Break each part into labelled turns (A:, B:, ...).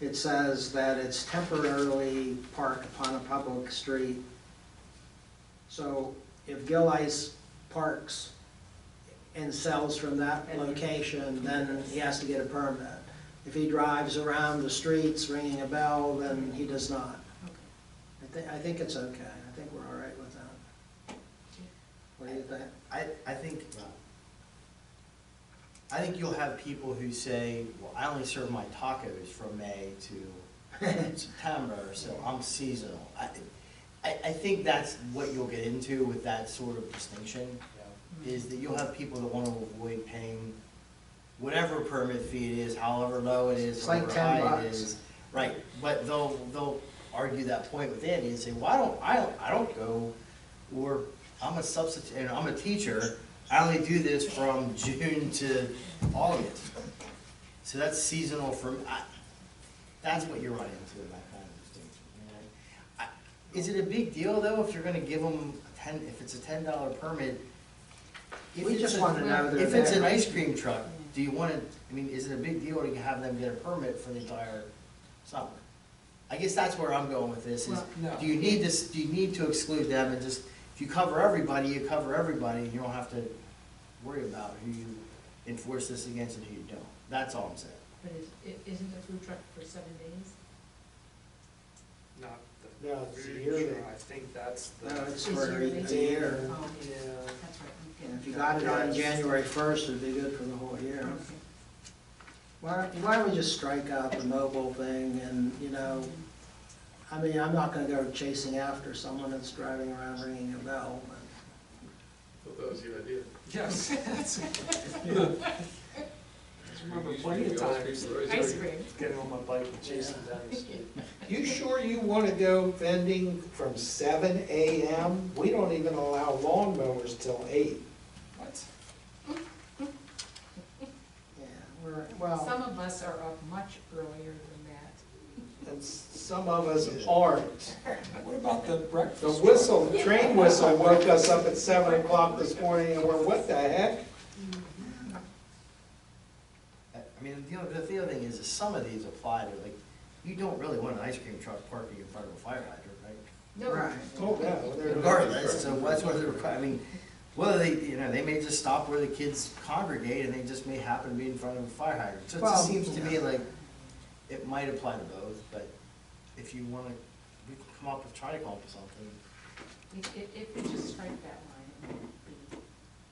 A: it says that it's temporarily parked upon a public street. So if Gill Ice parks and sells from that location, then he has to get a permit. If he drives around the streets ringing a bell, then he does not. I think, I think it's okay, I think we're all right with that. What do you think?
B: I, I think, I think you'll have people who say, well, I only serve my tacos from May to September, so I'm seasonal. I, I, I think that's what you'll get into with that sort of distinction, is that you'll have people that wanna avoid paying whatever permit fee it is, however low it is,
A: It's like
B: however
A: 10
B: high it
A: bucks.
B: is. Right, but they'll, they'll argue that point with Andy and say, well, I don't, I don't, I don't go, or I'm a substitute, and I'm a teacher, I only do this from June to August. So that's seasonal for, I, that's what you're running into in that kind of distinction. you know? I- Is it a big deal though, if you're gonna give them a ten, if it's a ten dollar permit? If
A: We
B: it's
A: just
B: a-
A: want to know they're
B: If it's an
A: there.
B: ice cream truck, do you wanna, I mean, is it a big deal to have them get a permit for the entire summer? I guess that's where I'm going with this, is,
C: Well, no.
B: do you need this, do you need to exclude them and just, if you cover everybody, you cover everybody, and you don't have to worry about who you enforce this against and who you don't, that's all I'm saying.
C: But is, i- isn't a food truck for seven days?
D: Not the.
E: No, it's
D: food
E: yearly.
D: truck. I think that's the.
A: No, it's
C: Is
A: for
C: your-
A: a year.
C: Oh,
E: Yeah,
C: that's right, okay.
A: And if you got it on January first, it'd be good for the whole year.
C: Okay.
A: Why, why don't we just strike out the mobile thing and, you know, I mean, I'm not gonna go chasing after someone that's driving around ringing a bell, but
F: Thought that was your idea.
D: Yes. Remember
F: Usually
D: plenty of
F: we always
D: times,
F: keep the roads
C: Ice
F: open.
C: cream.
D: getting on my bike and chasing
A: Yeah.
D: down the street.
E: You sure you wanna go vending from seven AM? We don't even allow lawnmowers till eight.
D: What?
A: yeah, we're, well,
C: Some of us are up much earlier than that.
E: And some of us aren't.
D: What about the breakfast?
E: The
D: truck?
E: whistle, the train whistle woke us up at seven o'clock this morning and we're, what the heck?
B: I I mean, the other, the other thing is, is some of these apply to, like, you don't really want an ice cream truck parking in front of a fire hydrant, right?
C: No,
A: right.
E: Oh, no. they're-
B: Regardless, so that's what they're, I mean, whether they, you know, they may just stop where the kids congregate, and they just may happen to be in front of a fire hydrant. So it
A: Well,
B: just seems to me
A: yeah.
B: like, it might apply to both, but if you wanna, we can come up with, try to come up with something.
C: If, if, if we just strike that line, it would be-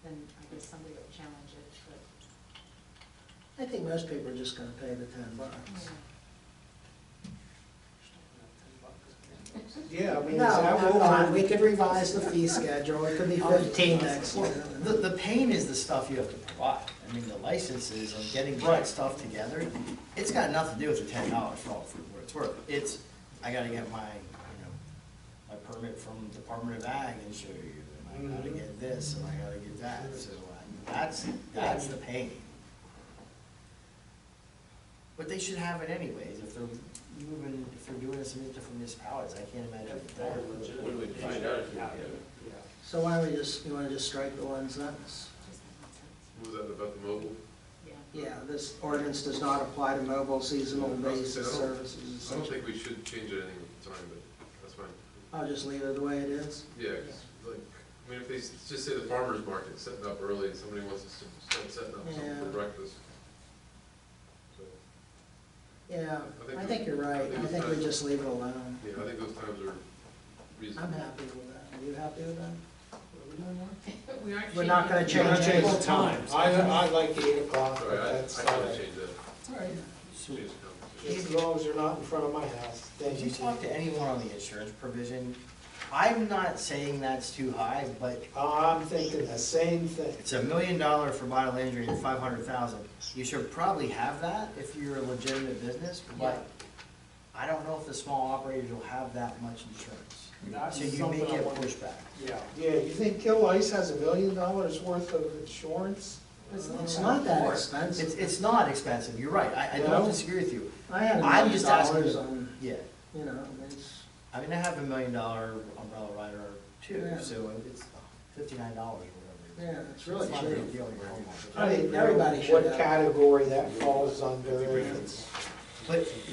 C: then I guess somebody will challenge it, but,
A: I think most people are just gonna pay the ten bucks.
E: Yeah, I mean, is
A: No,
E: that
A: never mind, we
E: what?
A: could revise the fee schedule, it could be fifteen next year.
B: The, the pain is the stuff you have to provide. I mean, the licenses of getting that stuff together, it's got nothing to do with the ten dollars for all, for what it's worth. It's, I gotta get my, you know, my permit from Department of Ag and show you, and I gotta get this, and I gotta get that, so I- that's, that's the pain. But they should have it anyways, if they're moving, if they're doing this in different municipalities, I can't imagine.
D: They're
F: What
D: legitimate.
F: do we find out if we get it?
D: Yeah.
A: So why don't we just, you wanna just strike the one sentence?
C: just makes sense,
F: What was that about the mobile?
C: yeah.
A: Yeah, this ordinance does not apply to mobile seasonal basis services.
F: I don't think we should change it any time, but that's fine.
A: I'll just leave it the way it is.
F: Yeah, 'cause, like, I mean, if they s- just say the farmer's market setting up early and somebody wants to s- start setting up something for
A: Yeah.
F: breakfast. So,
A: Yeah,
F: I think
A: I
F: we-
A: think you're right, I think we just leave it alone.
F: Yeah, I think those times are
A: I'm
F: reasonable.
A: happy with that, are you happy with that?
C: We aren't
A: We're not gonna
C: changing
A: change
C: it.
A: it.
E: Change the time. I, I like the eight o'clock,
F: Sorry,
E: but
F: I, I
E: that's fine.
F: kinda changed that,
C: It's all right.
B: So-
F: changed the conversation.
E: Just as long as you're not in front of my house, then
B: Did you
E: you can.
B: talk to anyone on the insurance provision? I'm not saying that's too high, but
E: Uh, I'm thinking the same thing.
B: it's a million dollar for bodily injury and five hundred thousand. You should probably have that if you're a legitimate business, but I don't know if the small operators will have that much insurance.
E: That's
B: So you may
E: something I
B: get
E: wonder-
B: pushback.
E: Yeah, yeah, you think Kill Ice has a million dollars worth of insurance?
A: It's not that
B: Or- It's,
A: expensive.
B: it's not expensive, you're right, I, I don't
E: No.
B: disagree with you,
A: I had a
B: I'm
A: million
B: just asking
A: dollars
B: you.
A: on,
B: yeah.
A: you know, it's,
B: I mean, I have a million dollar umbrella rider too,
A: Yeah.
B: so it's fifty-nine dollars or whatever.
A: yeah, it's really
B: It's not a big
A: cheap.
B: deal, you're home.
A: I think everybody should
E: What
A: have.
E: category that falls under, and it's-
B: But